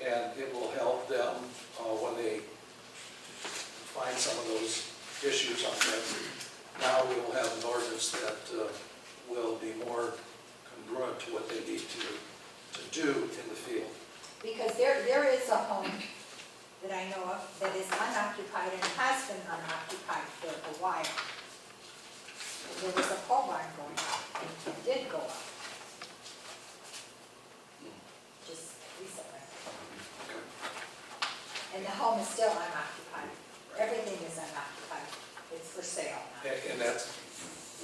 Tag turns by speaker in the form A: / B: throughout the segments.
A: and it will help them uh, when they find some of those issues on that. Now we will have an ordinance that uh, will be more congruent to what they need to, to do in the field.
B: Because there, there is a home that I know of that is unoccupied and has been unoccupied for a while. There was a pole barn going up, and it did go up. Just recently.
A: Okay.
B: And the home is still unoccupied. Everything is unoccupied. It's for sale now.
A: And, and that's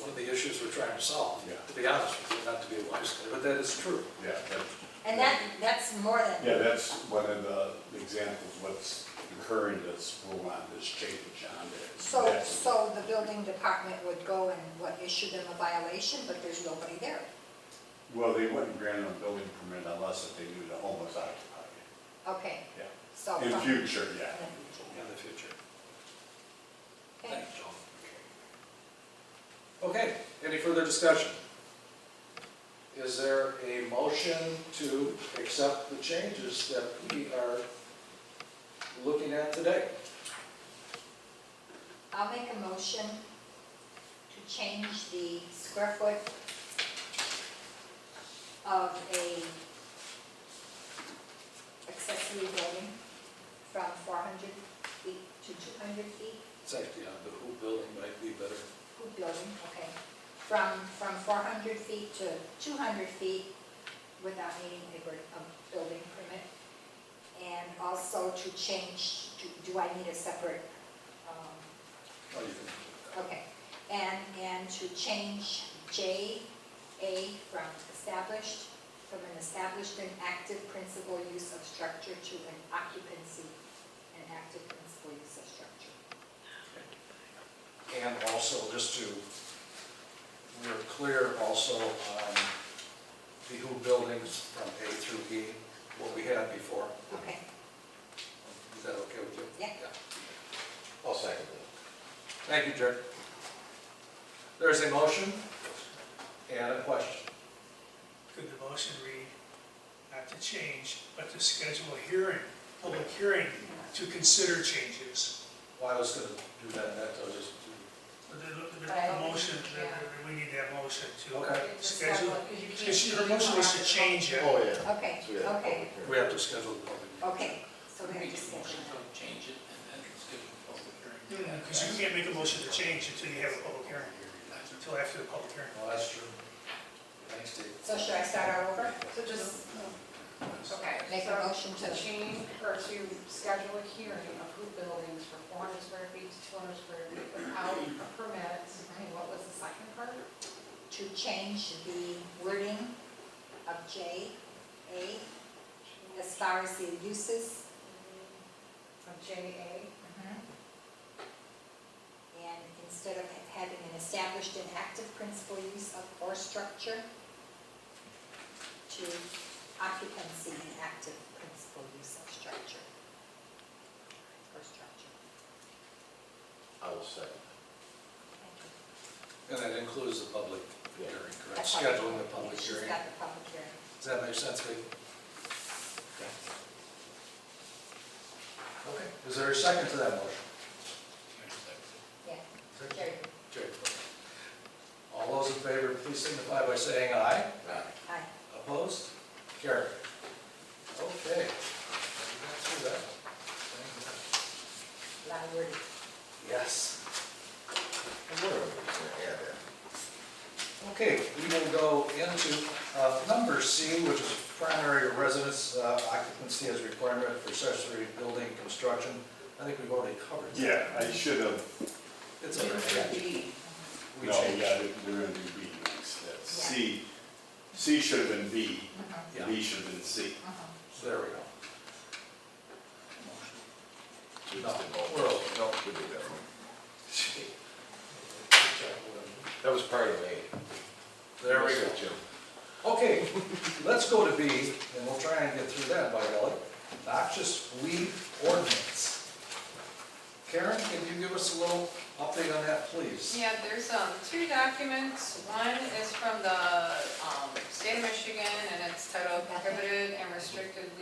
A: one of the issues we're trying to solve,
C: Yeah.
A: to be honest with you, not to be wise, but that is true.
C: Yeah, that-
B: And that, that's more than.
C: yeah, that's one of the examples, what's occurring that's going on, this change on it.
B: So,
C: That's-
B: so the building department would go and, what, issue them a violation, but there's nobody there?
C: Well, they wouldn't grant them a building permit unless if they knew the home was occupied,
B: Oh, Okay,
C: yeah.
B: so.
C: In
B: from-
C: future, yeah.
A: in the future.
B: Okay.
A: Thanks, John. Okay, any further discussion? Is there a motion to accept the changes that we are looking at today?
B: I'll make a motion to change the square foot of a accessory building from four hundred feet to two hundred feet,
A: It's actually on the who building might be better.
B: hoop building, okay, from, from four hundred feet to two hundred feet without needing a, gr- a building permit. And also to change, to, do I need a separate, um,
A: Oh, you can-
B: Okay, and, and to change J, A from established, from an established and active principal use of structure to an occupancy and active principal use of structure.
A: And also, just to, we're clear also on the who buildings from A through E, what we had before.
B: Okay,
A: Is that okay with you?
B: Yeah.
D: I'll second that.
A: Thank you, Jerry. There's a motion and a question.
E: Could the motion read, not to change, but to schedule a hearing, public hearing, to consider changes?
A: Well, I was gonna do that, that I was just.
E: But The, the-
B: But I
E: the
B: don't think-
E: motion, the-
B: yeah.
E: the- we need that motion to
A: Okay.
E: schedule. Because your motion was to change it.
D: Oh, yeah.
B: Okay,
D: So we have a
B: okay.
D: public hearing.
A: We have to schedule the public meeting.
B: okay, so we have discussion.
F: Change it and then schedule a public hearing.
E: Because you can't make a motion to change until you have a public hearing, until after the public hearing.
A: Well, that's true. Thanks, Dave.
B: So should I start all over?
G: So just, okay.
B: Make a
G: so
B: motion to-
G: change or to schedule a hearing of who buildings from four hundred square feet to two hundred square feet without permits. And what was the second part?
B: To change the wording of J, A, as far as the uses
G: From JA, Mm-hmm.
B: And instead of having an established and active principal use of or structure, to occupancy and active principal use of structure. Or structure.
D: I will second that.
B: Thank you.
A: And that includes the public hearing, correct?
B: That's
A: Scheduling the public
B: She's
A: hearing.
B: got the public hearing.
A: Does that make sense, Dave? Okay, is there a second to that motion?
B: Yeah, Carrie,
A: Jerry. All those in favor, please signify by saying aye.
B: aye.
A: Opposed? Carried. Okay. We got through that one.
B: Loud
A: Thank
B: word.
A: you. Yes.
D: I wonder if we can add that.
A: Okay, we will go into uh, number C, which is primary residence uh, occupancy as requirement for accessory building construction. I think we've already covered that.
C: Yeah, I should have,
A: It's all right. We
C: no,
A: changed.
C: yeah, they're gonna do B next, that's C. C should have been B,
A: Yeah,
C: B should have been C.
A: there we go.
D: We
A: No,
D: just did both.
A: we're okay.
D: No, we did that one.
A: Good
D: That was part of A.
A: job, Lynn. There we go.
D: That's it, Jim.
A: Okay, let's go to B, and we'll try and get through that by golly. Noxious weed ordinance. Karen, can you give us a little update on that, please?
H: Yeah, there's, um, two documents. One is from the, um, state of Michigan, and it's titled prohibited and